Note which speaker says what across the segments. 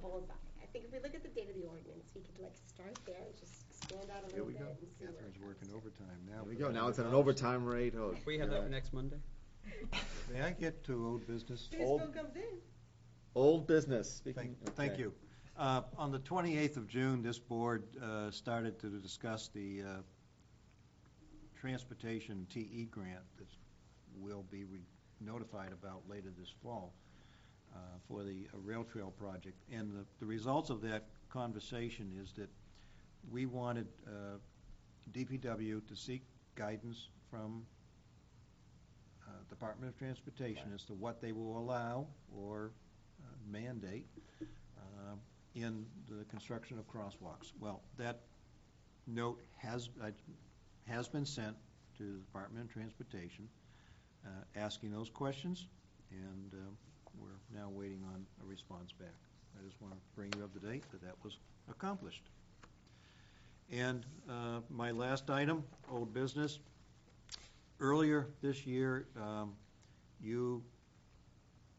Speaker 1: followed by. I think if we look at the date of the ordinance, we could like start there and just expand out a
Speaker 2: Here
Speaker 1: little
Speaker 2: we
Speaker 1: bit
Speaker 2: go.
Speaker 1: and see where
Speaker 2: Catherine's
Speaker 1: it
Speaker 2: working overtime now.
Speaker 3: There we
Speaker 2: for
Speaker 3: go,
Speaker 2: the
Speaker 3: now it's at an
Speaker 2: $100.
Speaker 3: overtime rate, oh.
Speaker 4: We have
Speaker 3: God.
Speaker 4: that next Monday?
Speaker 2: May I get to old business?
Speaker 1: goes.
Speaker 3: Old-
Speaker 1: This bill comes in.
Speaker 3: Old business. speaking-
Speaker 2: Thank thank
Speaker 3: okay.
Speaker 2: you. Uh, On the 28th of June, this board uh, started to discuss the uh, transportation TE grant that will be re- notified about later this fall uh, for the uh, rail trail project. And the- the results of that conversation is that we wanted uh, DPW to seek guidance from uh, Department of Transportation as to what they will allow or uh, mandate uh, in the construction of crosswalks. Well, that note has, uh, has been sent to the Department of Transportation, uh, asking those questions, and um, we're now waiting on a response back. I just want to bring you up to date that that was accomplished. And uh, my last item, old business. Earlier this year, um, you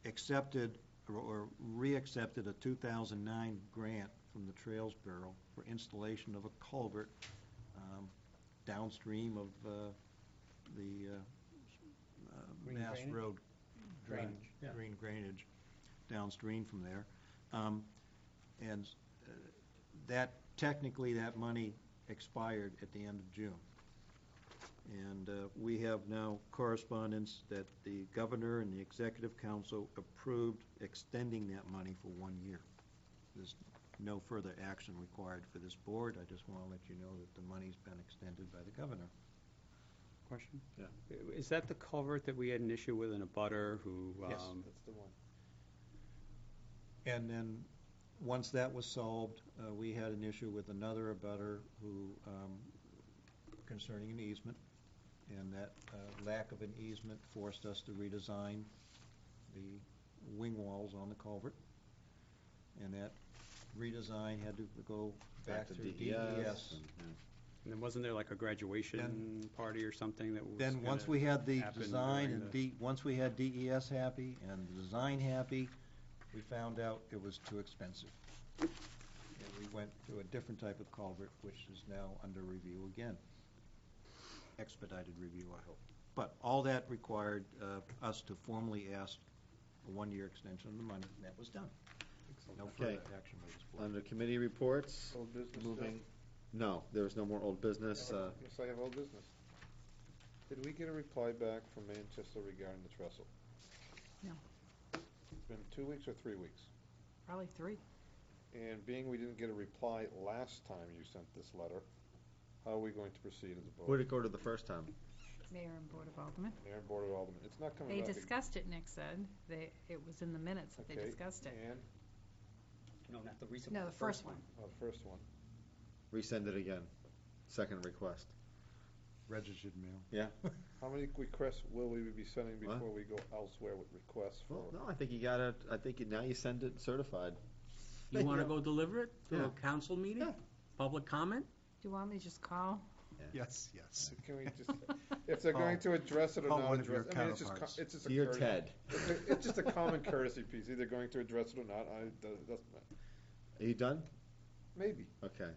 Speaker 2: accepted or- or re-accepted a 2009 grant from the Trails Bureau for installation of a culvert um, downstream of uh, the uh, uh,
Speaker 4: Green
Speaker 2: Mass
Speaker 4: drainage?
Speaker 2: Road drain-
Speaker 4: Drainage, yeah.
Speaker 2: green drainage downstream from there. Um, And uh, that, technically, that money expired at the end of June. And uh, we have now correspondence that the governor and the executive council approved extending that money for one year. There's no further action required for this board. I just want to let you know that the money's been extended by the governor.
Speaker 4: Question?
Speaker 3: Yeah.
Speaker 4: Is that the culvert that we had an issue with in a butter who,
Speaker 2: Yes.
Speaker 4: um,
Speaker 3: That's the one.
Speaker 2: And then, once that was solved, uh, we had an issue with another abutter who, um, concerning an easement, and that uh, lack of an easement forced us to redesign the wing walls on the culvert. And that redesign had to go back to E DES.
Speaker 3: and-
Speaker 4: and then wasn't there like a graduation party or something that was?
Speaker 2: Then, once
Speaker 4: gonna-
Speaker 2: we had the
Speaker 4: happen
Speaker 2: design
Speaker 4: during
Speaker 2: and
Speaker 4: the-
Speaker 2: D, once we had DES happy and the design happy, we found out it was too expensive. And we went to a different type of culvert, which is now under review again. Expedited review, I hope. But all that required uh, us to formally ask a one-year extension of the money, and that was done. No further
Speaker 3: Okay.
Speaker 2: action by this board.
Speaker 3: Under committee reports,
Speaker 5: Old business
Speaker 3: moving, no, there's no more old business, uh,
Speaker 5: Yes, I have old business. Did we get a reply back from Manchester regarding the trestle?
Speaker 6: No.
Speaker 5: It's been two weeks or three weeks.
Speaker 6: Probably three.
Speaker 5: And being we didn't get a reply last time you sent this letter, how are we going to proceed as a
Speaker 3: where'd
Speaker 5: board?
Speaker 3: it go to the first time?
Speaker 6: Mayor and Board of Aldermen.
Speaker 5: Mayor and Board of Aldermen, it's not coming
Speaker 6: They
Speaker 5: back. ag-
Speaker 6: discussed it, Nick said. They, it was in the minutes that they
Speaker 5: Okay,
Speaker 6: discussed it.
Speaker 5: And,
Speaker 4: No, not the recent
Speaker 6: No,
Speaker 4: one.
Speaker 6: the first one.
Speaker 5: oh, the first one.
Speaker 3: Resend it again, second request.
Speaker 2: Registered mail.
Speaker 5: How many requests will we be sending
Speaker 3: What?
Speaker 5: before we go elsewhere with requests for?
Speaker 3: Well, no, I think you gotta, I think you- now you send it certified.
Speaker 7: You want to go deliver it to
Speaker 3: Yeah.
Speaker 7: a council meeting?
Speaker 3: Yeah.
Speaker 7: Public comment?
Speaker 6: Do you want me to just call?
Speaker 2: Yes, yes.
Speaker 5: Can we just, if they're going to address it or
Speaker 2: Call
Speaker 5: not
Speaker 2: one of your
Speaker 5: address, I mean, it's just, co-
Speaker 2: counterparts.
Speaker 5: it's just a
Speaker 3: Dear
Speaker 5: courtesy-
Speaker 3: Ted,
Speaker 5: It's a- it's just a common courtesy piece, either going to address it or not, I, that- that's,
Speaker 3: are you done?
Speaker 5: maybe.
Speaker 3: Okay.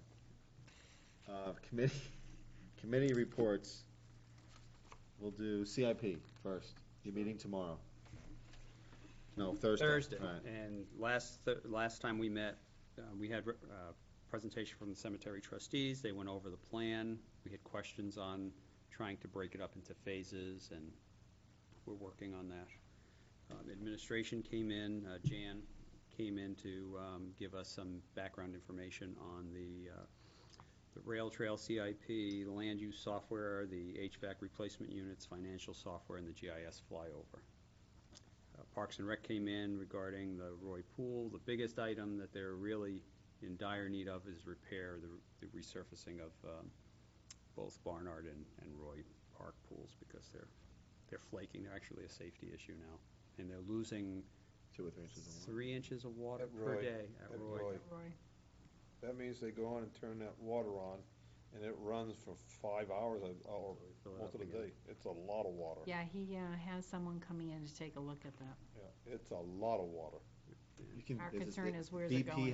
Speaker 3: Uh, committee, committee reports. We'll do CIP first. Your meeting tomorrow. No, Thursday.
Speaker 4: Thursday.
Speaker 3: All right.
Speaker 4: And last, th- last time we met, uh, we had a presentation from the cemetery trustees. They went over the plan. We had questions on trying to break it up into phases, and we're working on that. Um, Administration came in, uh, Jan came in to um, give us some background information on the uh, the rail trail CIP, the land use software, the HVAC replacement units, financial software, and the GIS flyover. Uh, Parks and Rec came in regarding the Roy Pool. The biggest item that they're really in dire need of is repair, the the resurfacing of um, both Barnard and and Roy Park pools because they're, they're flaking. They're actually a safety issue now. And they're losing
Speaker 3: Two or three inches of water.
Speaker 4: three inches of water
Speaker 5: At
Speaker 4: per
Speaker 5: Roy.
Speaker 4: day at
Speaker 5: At
Speaker 4: Roy.
Speaker 5: Roy. That means they go on and turn that water on, and it runs for five hours, uh, or
Speaker 4: Fill it
Speaker 5: most
Speaker 4: up
Speaker 5: of the
Speaker 4: again.
Speaker 5: day. It's a lot of water.
Speaker 6: Yeah, he uh, has someone coming in to take a look at that.
Speaker 5: Yeah, It's a lot of water.
Speaker 3: You can-
Speaker 6: Our
Speaker 3: is it-
Speaker 6: concern is where's it
Speaker 3: BP
Speaker 6: going?